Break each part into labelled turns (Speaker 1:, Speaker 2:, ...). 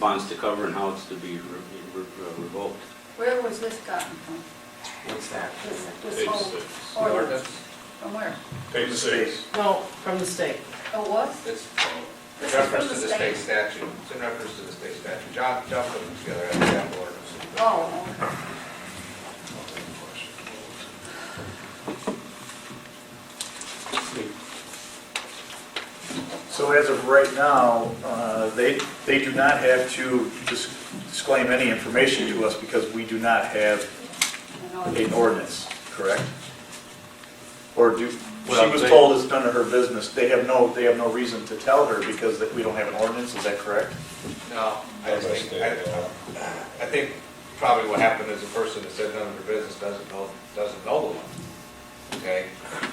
Speaker 1: bonds to cover and how it's to be re- re- re- revoked.
Speaker 2: Where was this gotten from?
Speaker 3: What's that?
Speaker 2: This, this
Speaker 4: Page
Speaker 2: whole
Speaker 4: six.
Speaker 2: ordinance? From where?
Speaker 4: Page six.
Speaker 5: No, from the state.
Speaker 2: Oh, was?
Speaker 3: It's
Speaker 2: This
Speaker 3: in
Speaker 2: is
Speaker 3: reference to
Speaker 2: from the
Speaker 3: the
Speaker 2: state.
Speaker 3: state statute. It's in reference to the state statute. John, John put them together as a sample ordinance.
Speaker 2: Oh, okay.
Speaker 6: So as of right now, uh, they, they do not have to dis- disclaim any information to us because we do not have
Speaker 2: I know
Speaker 6: an
Speaker 2: it-
Speaker 6: ordinance, correct? Or do, she
Speaker 1: Well,
Speaker 6: was
Speaker 1: they-
Speaker 6: told it's none of her business, they have no, they have no reason to tell her because that we don't have an ordinance, is that correct?
Speaker 3: No, I just think, I, I think probably what happened is the person that said none of their business doesn't know, doesn't know the law. Okay?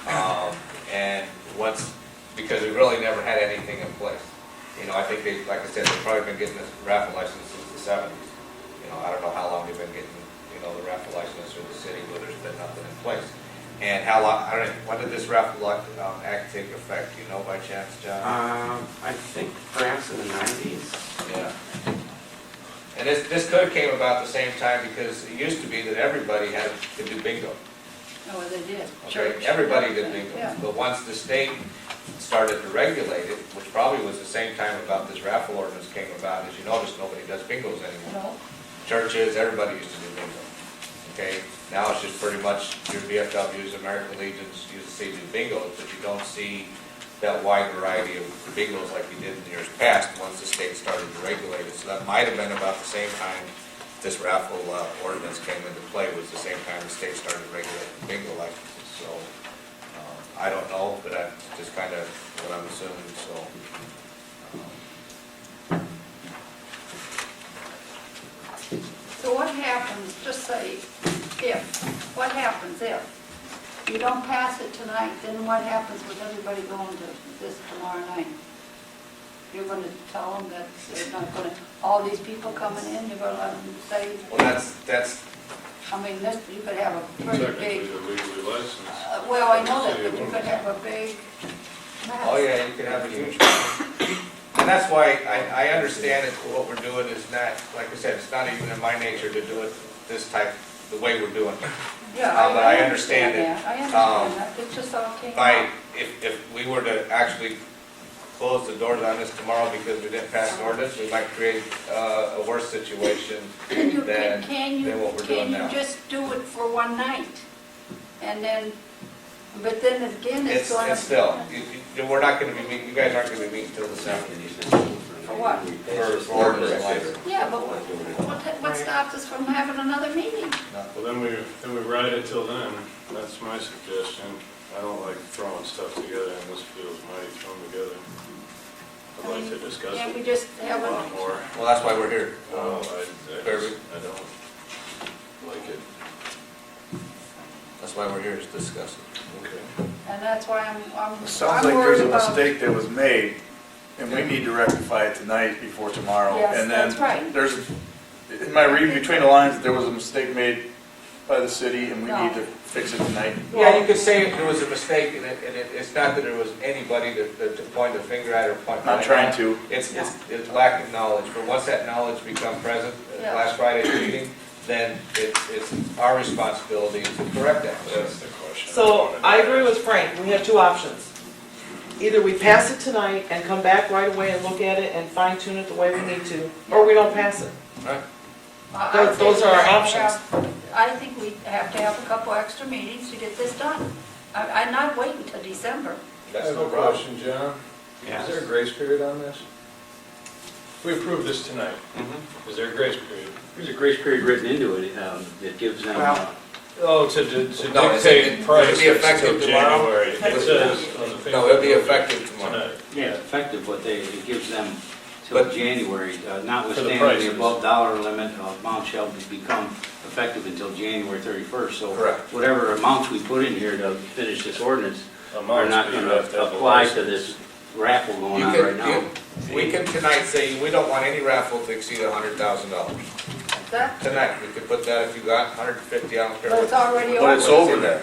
Speaker 3: Um, and once, because we really never had anything in place. You know, I think they, like I said, they've probably been getting this raffle license since the seventies. You know, I don't know how long they've been getting, you know, the raffle license from the city, but there's been nothing in place. And how long, I don't, know, when did this raffle li- um, act take effect? Do you know by chance, John?
Speaker 7: Um, I think perhaps in the nineties.
Speaker 3: Yeah. And this, this could have came about the same time because it used to be that everybody had to do bingo.
Speaker 2: Oh, they did.
Speaker 3: Okay,
Speaker 2: Church.
Speaker 3: everybody did bingo.
Speaker 2: Yeah.
Speaker 3: But once the state started to regulate it, which probably was the same time about this raffle ordinance came about, as you notice, nobody does bingos anymore.
Speaker 2: No,
Speaker 3: Churches, everybody used to do bingo. Okay, now it's just pretty much your VFWs, American Legions, you see do bingos, but you don't see that wide variety of bingos like you did in years past, once the state started to regulate it. So that might have been about the same time this raffle uh, ordinance came into play, was the same time the state started regulating bingo licenses. So, um, I don't know, but that's just kind of what I'm assuming, so. um,
Speaker 2: So what happens, just say, if, what happens if? You don't pass it tonight, then what happens with everybody going to this tomorrow night? You're going to tell them that they're not going to, all these people coming in, you're going to let them say,
Speaker 3: Well, that's, that's,
Speaker 2: I mean, this, you could have a pretty
Speaker 4: Technically,
Speaker 2: big,
Speaker 4: they're legally licensed.
Speaker 2: uh, well, I know that, but you could have a big mess.
Speaker 3: Oh, yeah, you could have a huge one. And that's why I, I understand that what we're doing is not, like I said, it's not even in my nature to do it this type, the way we're doing it.
Speaker 2: Yeah,
Speaker 3: Uh, but I understand
Speaker 2: that. I
Speaker 3: it.
Speaker 2: understand
Speaker 3: Um,
Speaker 2: that, it just all came
Speaker 3: By,
Speaker 2: out.
Speaker 3: if, if we were to actually close the doors on this tomorrow because we didn't pass an ordinance, we might create, uh, a worse situation
Speaker 2: Can you, can
Speaker 3: than,
Speaker 2: can
Speaker 3: than
Speaker 2: you,
Speaker 3: what we're doing
Speaker 2: can
Speaker 3: now.
Speaker 2: you just do it for one night? And then, but then again, it's
Speaker 3: It's,
Speaker 2: going to...
Speaker 3: it's still, you, you, we're not gonna be meeting, you guys aren't gonna be meeting till the seventh.
Speaker 1: For
Speaker 2: what?
Speaker 3: For- for ordinance license.
Speaker 2: Yeah, but what- what what stops us from having another meeting?
Speaker 4: Well, then we, then we ride it till then, that's my suggestion. I don't like throwing stuff together, and this feels mighty thrown together. I'd like to discuss
Speaker 2: Can't we
Speaker 4: it
Speaker 2: just
Speaker 4: a
Speaker 2: have
Speaker 4: lot
Speaker 2: a...
Speaker 4: more.
Speaker 3: Well, that's why we're here. Uh,
Speaker 4: No, I, I
Speaker 3: Kirby?
Speaker 4: just- I don't like it.
Speaker 3: That's why we're here, is to discuss it.
Speaker 4: Okay.
Speaker 2: And that's why I'm, I'm
Speaker 6: It
Speaker 2: I'm
Speaker 6: sounds like there's
Speaker 2: worried
Speaker 6: a
Speaker 2: about-
Speaker 6: mistake that was made, and we need to rectify it tonight before tomorrow.
Speaker 2: Yes,
Speaker 6: And then
Speaker 2: that's right.
Speaker 6: There's, in my read between the lines, there was a mistake made by the city, and we
Speaker 2: No.
Speaker 6: need to fix it tonight.
Speaker 3: Yeah, you could say it was a mistake, and it, and it, it's not that there was anybody to, to to point a finger at or point.
Speaker 6: Not trying to.
Speaker 3: It's, it's, it's lack of knowledge, but once that knowledge become present, uh,
Speaker 2: Yeah.
Speaker 3: last Friday's meeting, then it's, it's our responsibility to correct that.
Speaker 4: That's the question.
Speaker 5: So I agree with Frank, we have two options. Either we pass it tonight and come back right away and look at it and fine tune it the way we need to, or we don't pass it.
Speaker 2: I- I
Speaker 5: Those- those
Speaker 2: think
Speaker 5: are our
Speaker 2: we have to
Speaker 5: options.
Speaker 2: have- I think we have to have a couple extra meetings to get this done. I- I'm not waiting till December.
Speaker 4: I
Speaker 3: That's
Speaker 4: have
Speaker 3: no
Speaker 4: a
Speaker 3: problem.
Speaker 4: question, John. Is there a
Speaker 7: Yes.
Speaker 4: grace period on this? If We approve this tonight.
Speaker 3: Mm-hmm.
Speaker 4: Is there a grace period?
Speaker 1: There's a grace period written into it, um, that gives them, uh,
Speaker 7: Well-
Speaker 4: Oh, to to
Speaker 3: No, it's-
Speaker 4: dictate
Speaker 3: it-
Speaker 4: price,
Speaker 3: it'd be
Speaker 4: it's till
Speaker 3: effective tomorrow.
Speaker 4: January. It says on the paper.
Speaker 3: No, it'll be effective tomorrow.
Speaker 4: Tonight.
Speaker 1: yeah, effective, but they, it gives them till
Speaker 3: But-
Speaker 1: January, uh,
Speaker 4: For the
Speaker 1: notwithstanding
Speaker 4: prices.
Speaker 1: the above dollar limit, uh, amount shall be- become effective until January 31st. So
Speaker 3: Correct.
Speaker 1: whatever amounts we put in here to finish this ordinance are
Speaker 4: Amounts,
Speaker 1: not
Speaker 4: but
Speaker 1: going
Speaker 4: you
Speaker 1: to
Speaker 4: have to have a
Speaker 1: apply to
Speaker 4: license.
Speaker 1: this raffle going
Speaker 3: You
Speaker 1: on
Speaker 3: can-
Speaker 1: right now.
Speaker 3: you- We can tonight say, we don't want any raffle to exceed a hundred thousand dollars.
Speaker 2: That,
Speaker 3: Tonight, we could put that if you got hundred and fifty, I don't care.
Speaker 2: But it's
Speaker 3: what-
Speaker 2: already
Speaker 3: what
Speaker 2: over.
Speaker 3: it's there.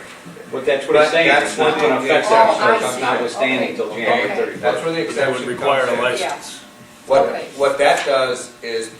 Speaker 1: But that's what I'm
Speaker 3: But
Speaker 1: saying,
Speaker 3: that's
Speaker 1: it's not
Speaker 3: what
Speaker 1: going
Speaker 3: the
Speaker 1: to affect
Speaker 2: exception-
Speaker 1: that,
Speaker 2: Oh, I see.
Speaker 1: notwithstanding
Speaker 2: Okay.
Speaker 1: till
Speaker 3: Okay,
Speaker 1: January 31st.
Speaker 3: That's where the
Speaker 4: That
Speaker 3: exception
Speaker 4: would
Speaker 3: comes
Speaker 4: require a
Speaker 3: in.
Speaker 4: license.
Speaker 3: What,
Speaker 2: Okay.
Speaker 3: what that does is put